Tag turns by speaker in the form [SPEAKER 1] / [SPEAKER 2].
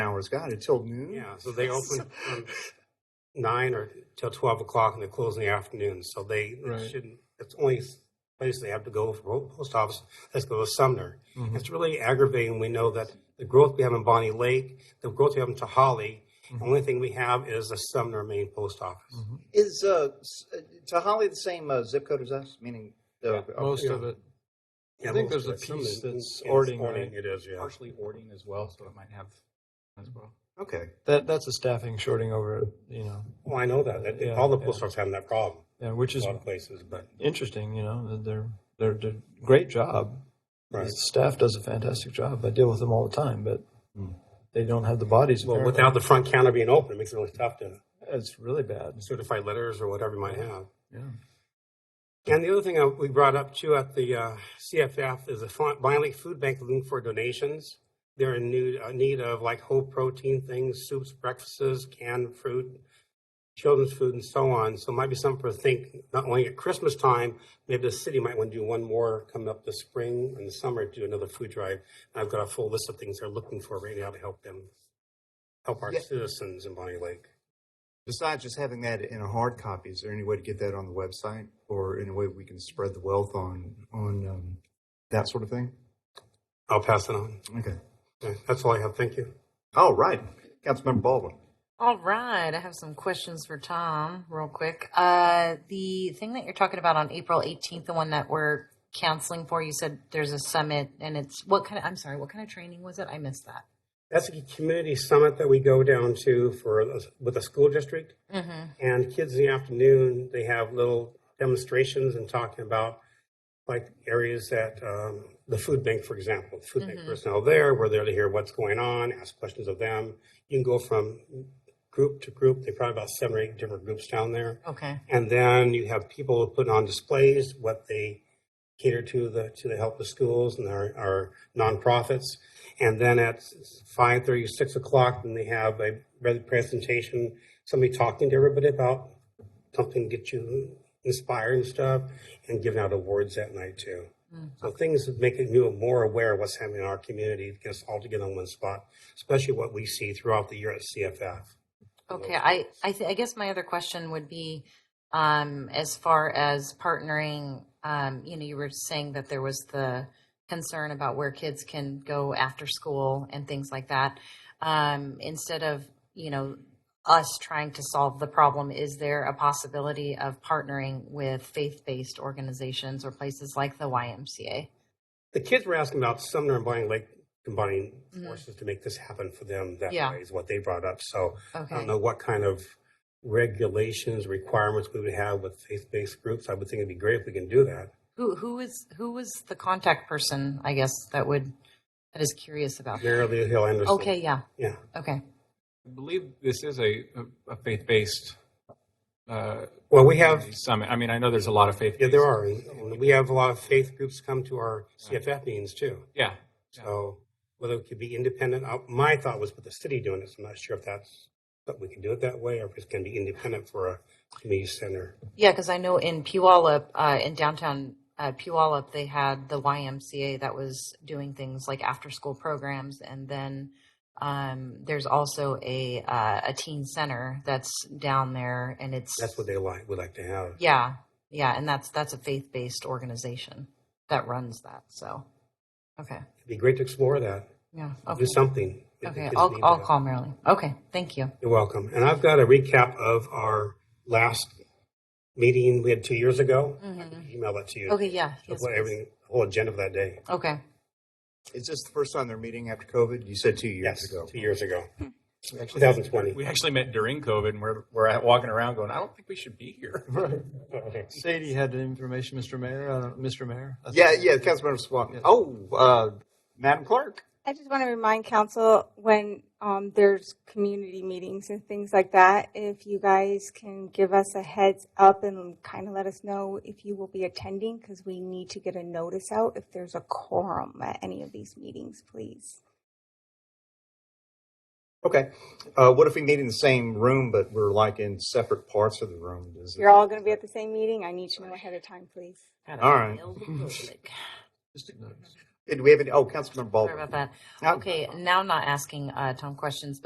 [SPEAKER 1] hours, God, until noon?
[SPEAKER 2] Yeah, so they open from nine or till twelve o'clock, and they close in the afternoon. So they it
[SPEAKER 1] Right.
[SPEAKER 2] shouldn't. It's the only place they have to go for po- post office. Let's go to Sumner.
[SPEAKER 1] Mhm.
[SPEAKER 2] It's really aggravating. We know that the growth we have in Bonnie Lake, the growth we have in Tahali,
[SPEAKER 1] Mm-hmm.
[SPEAKER 2] the only thing we have is the Sumner main post office.
[SPEAKER 1] Mhm.
[SPEAKER 3] Is uh, s- uh, Tahali the same uh, zip code as us? Meaning, uh,
[SPEAKER 2] Yeah,
[SPEAKER 3] okay.
[SPEAKER 1] Most
[SPEAKER 2] Yeah.
[SPEAKER 1] of it.
[SPEAKER 2] Yeah,
[SPEAKER 1] I think
[SPEAKER 2] most
[SPEAKER 1] there's a
[SPEAKER 2] of it. Sumner
[SPEAKER 1] piece that's
[SPEAKER 2] is
[SPEAKER 1] Ording, right?
[SPEAKER 2] It is, yeah.
[SPEAKER 4] partially hoarding as well, so it might have as well.
[SPEAKER 3] okay.
[SPEAKER 1] That, that's a staffing shorting over, you know,
[SPEAKER 2] Well, I know that. that
[SPEAKER 1] Yeah,
[SPEAKER 2] all the
[SPEAKER 1] yeah.
[SPEAKER 2] post offices have that problem.
[SPEAKER 1] yeah, which
[SPEAKER 2] A
[SPEAKER 1] is
[SPEAKER 2] lot of places, but
[SPEAKER 1] interesting, you know, that they're, they're, they're great job.
[SPEAKER 2] right.
[SPEAKER 1] The staff does a fantastic job. I deal with them all the time, but they don't have the bodies.
[SPEAKER 2] Hmm. Well,
[SPEAKER 1] apparently.
[SPEAKER 2] without the front counter being open, it makes it really tough to
[SPEAKER 1] It's really bad.
[SPEAKER 2] certify letters or whatever you might have.
[SPEAKER 1] Yeah.
[SPEAKER 2] And the other thing uh, we brought up too at the uh, CFF is the Fon- Bonnie Lake Food Bank looking for donations. They're in need, uh, need of like whole protein things, soups, breakfasts, canned fruit, children's food, and so on. So it might be something for think not only at Christmas time, maybe the city might want to do one more coming up this spring and the summer, do another food drive. And I've got a full list of things they're looking for right now to help them, help our
[SPEAKER 3] Yeah.
[SPEAKER 2] citizens in Bonnie Lake.
[SPEAKER 3] Besides just having that in a hard copy, is there any way to get that on the website, or any way we can spread the wealth on on um, that sort of thing?
[SPEAKER 2] I'll pass it on.
[SPEAKER 3] Okay.
[SPEAKER 2] Yeah, That's all I have. Thank you.
[SPEAKER 3] All right, Councilmember Baldwin.
[SPEAKER 5] All right, I have some questions for Tom, real quick. Uh, the thing that you're talking about on April 18th, the one that we're counseling for, you said there's a summit, and it's what kind of? I'm sorry, what kind of training was it? I missed that.
[SPEAKER 2] That's a community summit that we go down to for with the school district. And kids in the afternoon, they have little demonstrations and talking about like areas that um, the food bank, for example, food bank personnel there. We're there to hear what's going on, ask questions of them. You can go from group to group. They probably about seven or eight different groups down there.
[SPEAKER 5] Okay.
[SPEAKER 2] And then you have people putting on displays what they cater to the to the help of schools and our, our nonprofits. And then at five thirty, six o'clock, then they have a re- presentation, somebody talking to everybody about something to get you inspired and stuff, and giving out awards that night too. So things that make you more aware of what's happening in our community, get us all together in one spot, especially what we see throughout the year at CFF.
[SPEAKER 5] Okay. I I, th- I guess my other question would be, um, as far as partnering, um, you know, you were saying that there was the concern about where kids can go after school and things like that. Um, instead of you know us trying to solve the problem, is there a possibility of partnering with faith-based organizations or places like the YMCA?
[SPEAKER 2] the kids were asking about Sumner and Bonnie Lake combining
[SPEAKER 5] Mhm.
[SPEAKER 2] forces to make this happen for them. That
[SPEAKER 5] Yeah.
[SPEAKER 2] way is what they brought up. So I
[SPEAKER 5] Okay.
[SPEAKER 2] don't know what kind of regulations, requirements we would have with faith-based groups. I would think it'd be great if we can do that.
[SPEAKER 5] Who who is who was the contact person? I guess that would that is curious about. That.
[SPEAKER 2] Mary Lou Hill Anderson.
[SPEAKER 5] Okay. Yeah.
[SPEAKER 2] Yeah.
[SPEAKER 5] Okay.
[SPEAKER 4] I believe this is a, a, a faith-based uh,
[SPEAKER 2] Well, we have,
[SPEAKER 4] summit. I mean, I know there's a lot of faith.
[SPEAKER 2] yeah, there are. And- and We have a lot of faith groups come to our CFF meetings too.
[SPEAKER 4] Yeah,
[SPEAKER 2] So whether it could be independent, uh, my thought was with the city doing this. I'm not sure if that's, but we can do it that way or if it's going to be independent for a community center.
[SPEAKER 5] Yeah, because I know in Puyallup, uh, in downtown uh, Puyallup, they had the YMCA that was doing things like after-school programs, and then um, there's also a uh, a teen center that's down there, and it's
[SPEAKER 2] That's what they like, would like to have.
[SPEAKER 5] yeah, yeah, and that's that's a faith-based organization that runs that. So, okay,
[SPEAKER 2] It'd be great to explore that.
[SPEAKER 5] yeah,
[SPEAKER 2] do
[SPEAKER 5] okay,
[SPEAKER 2] something. It-
[SPEAKER 5] okay.
[SPEAKER 2] it's
[SPEAKER 5] I'll
[SPEAKER 2] needed.
[SPEAKER 5] I'll call Marilyn. Okay, thank you.
[SPEAKER 2] You're welcome. And I've got a recap of our last meeting we had two years ago. I can email that to you.
[SPEAKER 5] Mm-hmm. Okay, yeah,
[SPEAKER 2] Of
[SPEAKER 5] yes,
[SPEAKER 2] what
[SPEAKER 5] please.
[SPEAKER 2] everything, whole agenda for that day.
[SPEAKER 5] okay,
[SPEAKER 3] Is this the first time they're meeting after COVID? You said two years
[SPEAKER 2] Yes,
[SPEAKER 3] ago.
[SPEAKER 2] two years ago,
[SPEAKER 5] Hmm.
[SPEAKER 4] we actually,
[SPEAKER 2] 2020.
[SPEAKER 4] we actually met during COVID, and we're we're out walking around going, I don't think we should be here.
[SPEAKER 1] Sadie had information, Mr. Mayor, uh, Mr. Mayor. I think.
[SPEAKER 3] Yeah, yeah, Councilmember Swanton. Oh, uh, Madam Clerk.
[SPEAKER 6] I just want to remind council when um, there's community meetings and things like that, if you guys can give us a heads up and kind of let us know if you will be attending, because we need to get a notice out if there's a quorum at any of these meetings, please.
[SPEAKER 3] Okay. Uh, what if we meet in the same room, but we're like in separate parts of the room? Does it-
[SPEAKER 6] You're all going to be at the same meeting. I need to know ahead of time, please.
[SPEAKER 5] Gotta
[SPEAKER 3] All right.
[SPEAKER 5] build the public.
[SPEAKER 3] Do we have any? Oh, Councilmember
[SPEAKER 5] Sorry
[SPEAKER 3] Baldwin.
[SPEAKER 5] about that.
[SPEAKER 3] No.
[SPEAKER 5] Okay, now I'm not asking uh, Tom questions,